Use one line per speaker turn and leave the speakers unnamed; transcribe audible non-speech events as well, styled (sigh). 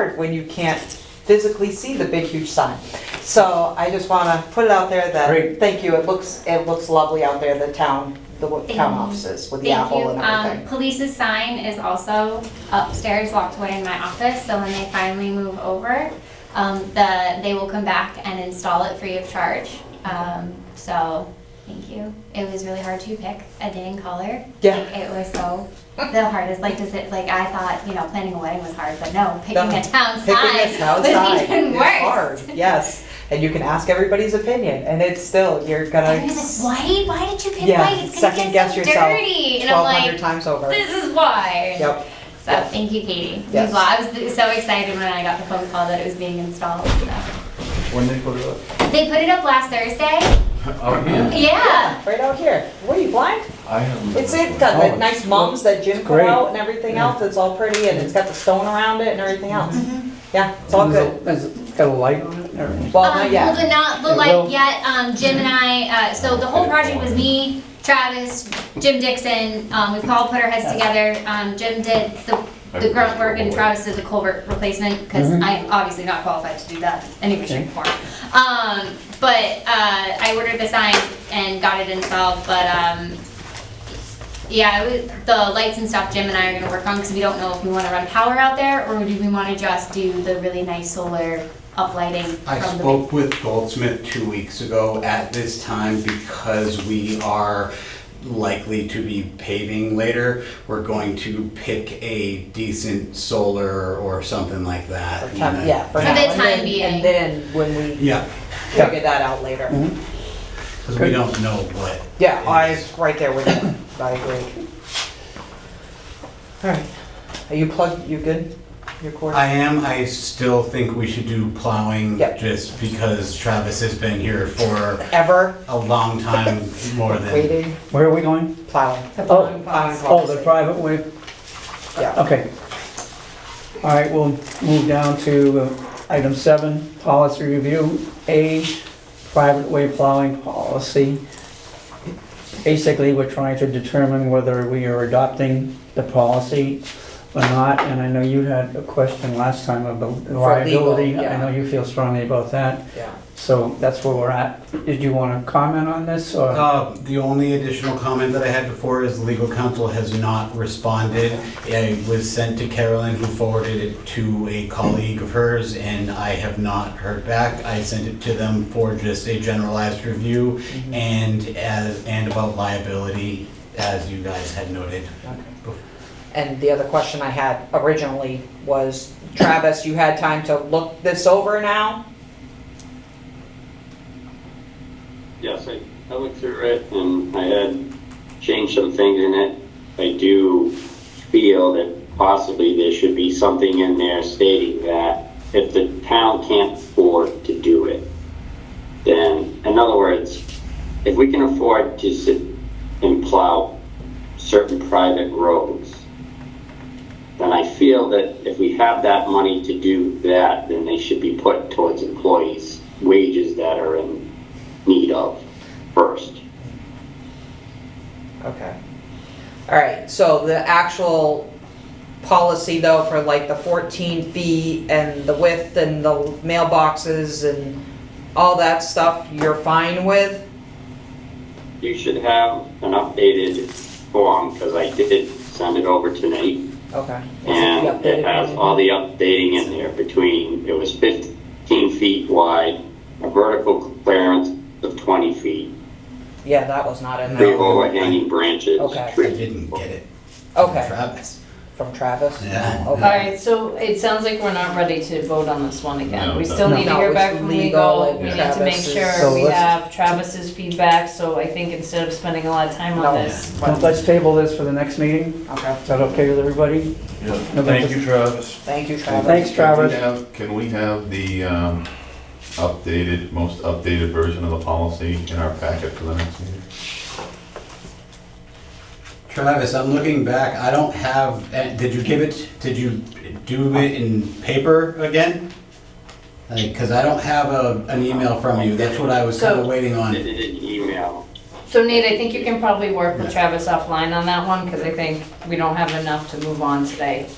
hard when you can't physically see the big huge sign. So I just want to put it out there that,
Great.
thank you, it looks, it looks lovely out there, the town, the wo-
Thank
town
you.
offices with the
Thank you.
apple and
Um,
everything.
police's sign is also upstairs, locked away in my office, so when they finally move over, um, the, they will come back and install it free of charge. Um, so, thank you. It was really hard to pick a day and color.
Yeah.
Like, It was so, the hardest, like, does it, like, I thought, you know, planning a wedding was hard, but no, picking
No.
a town
Picking
sign
this town
(laughs) was
sign
even
is
worse.
hard, Yes, and you can ask everybody's opinion, and it's still, you're gonna,
Everyone's like, white? Why did you pick
Yeah,
white? It's gonna
second
get
guess
so
yourself
dirty. And I'm
twelve
like,
hundred times over.
this is why.
Yep,
So
Yes.
thank you, Katie.
Yes.
Well, I was so excited when I got the phone call that it was being installed. So.
When they put it up?
They put it up last Thursday.
Out here?
Yeah.
right out here. What are you blind?
I haven't.
It's, it's got
Oh,
the
it's-
nice mums that Jim put
great.
out and everything
Yeah.
else, it's all pretty, and it's got the stone around it and everything else.
Mm-hmm.
Yeah, it's all
Is
good.
it- is it got a light on it and everything?
Well, not
Um, Well,
yet.
the not the
It
light
will.
yet. Um, Jim and I. Uh, so the whole project was me, Travis, Jim Dixon. Um, we've all put our heads together. Um, Jim did the the grunt work and Travis did the culvert replacement because
Mm-hmm.
Mhm.
I am obviously not qualified to do that anyway, shape,
Okay.
or form. Um, but uh, I ordered the sign and got it installed. But um, yeah, it was, the lights and stuff Jim and I are gonna work on because we don't know if we want to run power out there or do we want to just do the really nice solar uplighting
I
from the
spoke with Goldsmith two weeks ago at this time because we are likely to be paving later. We're going to pick a decent solar or something like that.
For time- Yeah, for
For
now.
the
And
time
then-
being.
And then when we
Yeah,
Yeah.
figure that out later.
Mhm.
because we don't know what.
Yeah, I
is.
right there with you. I agree. All right. Are you plugged? You good? Your cord?
I am, I still think we should do plowing
Yep.
just because Travis has been here for
Ever
a long time, more than.
waiting?
Where are we going?
Plowing.
Oh,
Plowing
oh, the
policy.
private way,
Yeah.
okay. All right, we'll move down to uh, item seven, policy review, A, private way plowing policy. Basically, we're trying to determine whether we are adopting the policy or not, and I know you had a question last time about the
legal,
liability. I
yeah.
know you feel strongly about that.
Yeah.
So that's where we're at. Did you want to comment on this or?
Uh, The only additional comment that I had before is legal counsel has not responded. It was sent to Carolyn, who forwarded it to a colleague of hers, and I have not heard back. I sent it to them for just a generalized review and as, and about liability, as you guys had noted.
Okay. And the other question I had originally was, Travis, you had time to look this over now?
Yes, I, I looked through it and I had changed some things in it. I do feel that possibly there should be something in there stating that if the town can't afford to do it, then, in other words, if we can afford to sit and plow certain private roads, then I feel that if we have that money to do that, then they should be put towards employees' wages that are in need of first.
Okay. All right, so the actual policy though for like the 14 feet and the width and the mailboxes and all that stuff, you're fine with?
You should have an updated form, because I did send it over to Nate,
Okay.
and it has all the updating in there between, it was 15 feet wide, a vertical clearance of 20 feet,
Yeah, that was not in
three
there.
No.
overhanging branches,
Okay.
I
trees.
didn't get it. from
Okay,
Travis.
from Travis?
Yeah.
All
Okay.
right, so it sounds like we're not ready to vote on this one again.
No,
We still need to
No,
hear
it's
back from
legal
legal.
and
We need to make
Travis's-
So
sure we
let's-
have Travis's feedback, so I think instead of spending a lot of time
No.
on this.
Let's table this for the next meeting.
Okay,
Is that okay with everybody?
Yeah,
No,
thank
that's-
you, Travis.
thank you Travis.
Thanks, Travis.
Can we have- Can we have the um, updated, most updated version of the policy in our packet for the next meeting?
Travis, I'm looking back, I don't have, eh, did you give it, did you do it in paper again? Like, cause I don't have a, an email from you, that's what I was kinda
So-
waiting
I
on.
did it in email.
So Nate, I think you can probably work with Travis offline on that one, because I think we don't have enough to move on today.